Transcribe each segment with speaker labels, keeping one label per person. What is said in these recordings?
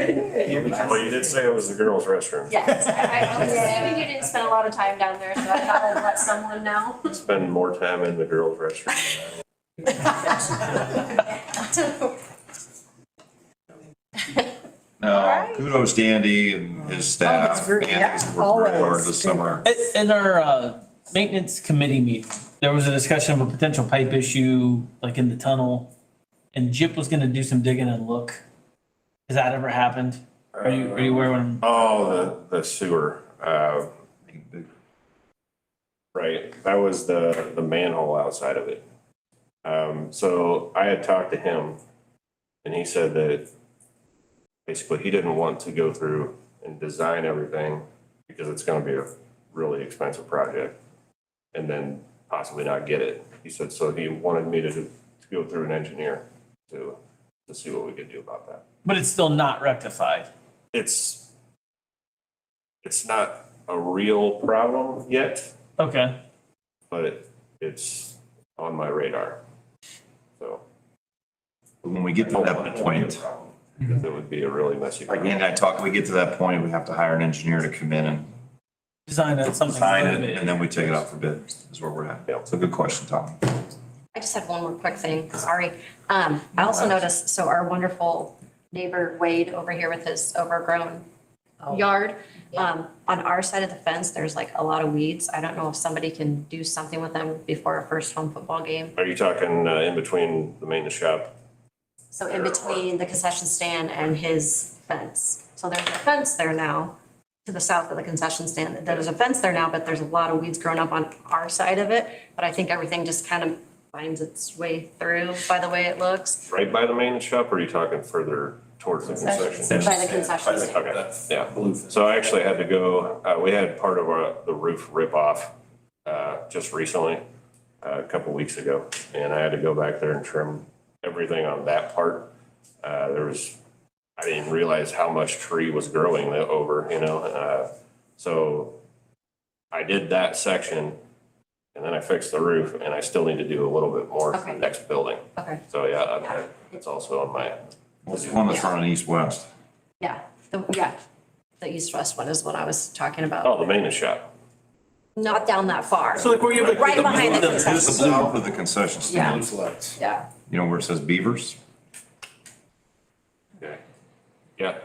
Speaker 1: every time.
Speaker 2: Well, you did say it was the girls' restroom.
Speaker 3: Yes, I, I was assuming you didn't spend a lot of time down there, so I thought I'd let someone know.
Speaker 2: Spend more time in the girls' restroom.
Speaker 4: No, kudos to Andy and his staff.
Speaker 1: it's Oh, great.
Speaker 4: Andy's
Speaker 1: Yeah,
Speaker 4: worked very hard
Speaker 1: always.
Speaker 4: this summer.
Speaker 5: At, at our, uh, maintenance committee meeting, there was a discussion of a potential pipe issue, like in the tunnel. And Jip was gonna do some digging and look. Has that ever happened? Are you, are you aware when,
Speaker 2: Oh, the, the sewer, uh, right, that was the, the manhole outside of it. Um, so I had talked to him and he said that basically he didn't want to go through and design everything because it's gonna be a really expensive project and then possibly not get it. He said, so he wanted me to, to go through an engineer to, to see what we could do about that.
Speaker 5: but it's still not rectified?
Speaker 2: it's it's not a real problem yet,
Speaker 5: Okay,
Speaker 2: but it's on my radar. So
Speaker 4: When we get to that point,
Speaker 2: because it would be a really messy.
Speaker 4: like Andy and I talked, we get to that point, we have to hire an engineer to come in and
Speaker 5: design that something.
Speaker 4: sign it, and then we take it out for bid, is where we're at. So good question, Tom.
Speaker 6: I just had one more quick thing, sorry. Um, I also noticed, so our wonderful neighbor Wade over here with his overgrown yard, um, on our side of the fence, there's like a lot of weeds. I don't know if somebody can do something with them before our first home football game.
Speaker 2: Are you talking uh, in between the maintenance shop?
Speaker 6: So in between the concession stand and his fence. So there's a fence there now, to the south of the concession stand. There's a fence there now, but there's a lot of weeds growing up on our side of it. But I think everything just kind of finds its way through by the way it looks.
Speaker 2: Right by the maintenance shop, or are you talking further towards the concession?
Speaker 6: By the concession stand.
Speaker 2: Okay, yeah. So I actually had to go, uh, we had part of our, the roof rip off, uh, just recently, uh, a couple weeks ago. And I had to go back there and trim everything on that part. Uh, there was, I didn't realize how much tree was growing there over, you know, uh, so I did that section and then I fixed the roof and I still need to do a little bit more for the
Speaker 6: Okay.
Speaker 2: next building.
Speaker 6: Okay,
Speaker 2: So yeah, I- I- it's also on my,
Speaker 4: What's the one that's running east-west?
Speaker 6: yeah, the, yeah, the east-west one is what I was talking about,
Speaker 2: oh, the maintenance shop.
Speaker 6: not down that far.
Speaker 5: So like where you have like.
Speaker 6: Right behind the
Speaker 4: The
Speaker 6: concession,
Speaker 4: south of the concession stand,
Speaker 6: yeah,
Speaker 4: you know where it says Beavers?
Speaker 2: Okay. Yeah.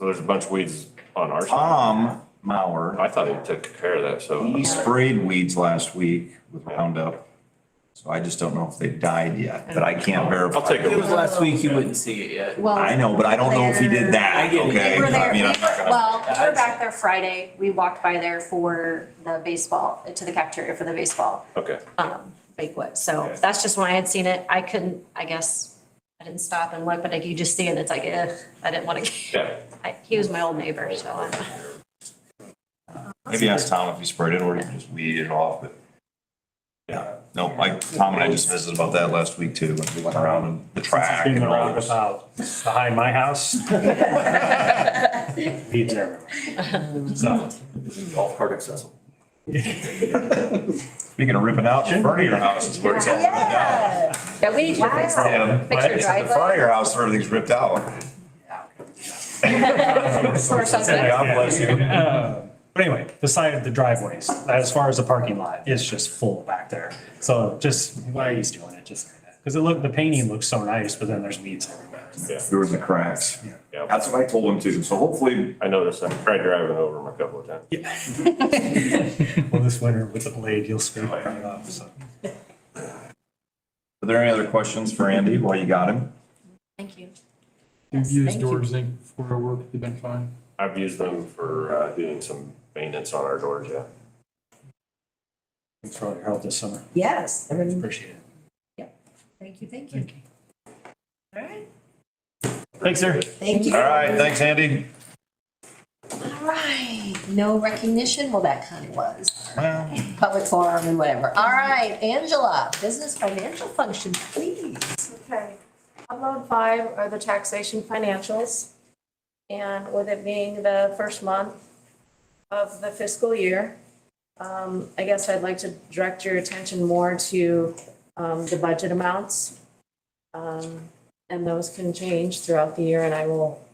Speaker 2: So there's a bunch of weeds on our side.
Speaker 4: Tom Mauer,
Speaker 2: I thought he took care of that, so.
Speaker 4: he sprayed weeds last week with Roundup. So I just don't know if they died yet, but I can't verify.
Speaker 2: I'll take
Speaker 5: It
Speaker 2: a
Speaker 5: was last week, you wouldn't see it yet.
Speaker 6: well.
Speaker 4: I know, but I don't know if he did
Speaker 5: I
Speaker 4: that,
Speaker 5: get it.
Speaker 4: okay?
Speaker 6: We were there,
Speaker 4: I
Speaker 6: we-
Speaker 4: mean, I'm not gonna-
Speaker 6: well, we were back there Friday, we walked by there for the baseball, to the cafeteria for the baseball,
Speaker 2: Okay.
Speaker 6: um, banquet, so
Speaker 2: Okay.
Speaker 6: that's just when I had seen it, I couldn't, I guess, I didn't stop and look, but like you just see it, it's like, eh, I didn't wanna,
Speaker 2: Yeah.
Speaker 6: I, he was my old neighbor, so I'm.
Speaker 4: Maybe ask Tom if he sprayed it or if he just weeded it off, but. Yeah, no, like Tom and I just visited about that last week too, when we went around and the track
Speaker 7: In
Speaker 4: and
Speaker 7: the
Speaker 4: all this.
Speaker 7: roundabout behind my house. Weeds everywhere. So,
Speaker 4: Golf cart accessible. Speaking of ripping out, in front of your house is where it's all ripped out.
Speaker 3: Yeah, we need to fix that.
Speaker 4: Yeah,
Speaker 3: Fix your
Speaker 4: in
Speaker 3: driveway.
Speaker 4: front of your house, everything's ripped out.
Speaker 3: Or something.
Speaker 4: God bless you.
Speaker 7: uh, But anyway, the side of the driveways, as far as the parking lot, is just full back there. So just, why he's doing it, just, because it looked, the painting looks so nice, but then there's weeds everywhere.
Speaker 4: Through the cracks.
Speaker 2: Yeah.
Speaker 4: That's what I told him too, so hopefully,
Speaker 2: I noticed. I tried driving over him a couple of times.
Speaker 7: Well, this winter with the blade, you'll scrape it right off, so.
Speaker 4: are there any other questions for Andy while you got him?
Speaker 6: Thank you.
Speaker 8: You've used doors, Inc. for our work, they've been fine.
Speaker 2: I've used them for uh, doing some maintenance on our doors, yeah.
Speaker 7: Thanks for all your help this summer.
Speaker 1: Yes, I mean,
Speaker 7: Appreciate it.
Speaker 1: thank you, thank you. All right,
Speaker 5: Thanks, sir.
Speaker 1: thank you.
Speaker 4: All right, thanks, Andy.
Speaker 1: All right, no recognition, well, that kind of was,
Speaker 4: Well,
Speaker 1: public forum and whatever. All right, Angela, business financial function, please.
Speaker 3: Okay. Upload five are the taxation financials. And with it being the first month of the fiscal year, um, I guess I'd like to direct your attention more to, um, the budget amounts. Um, and those can change throughout the year and I will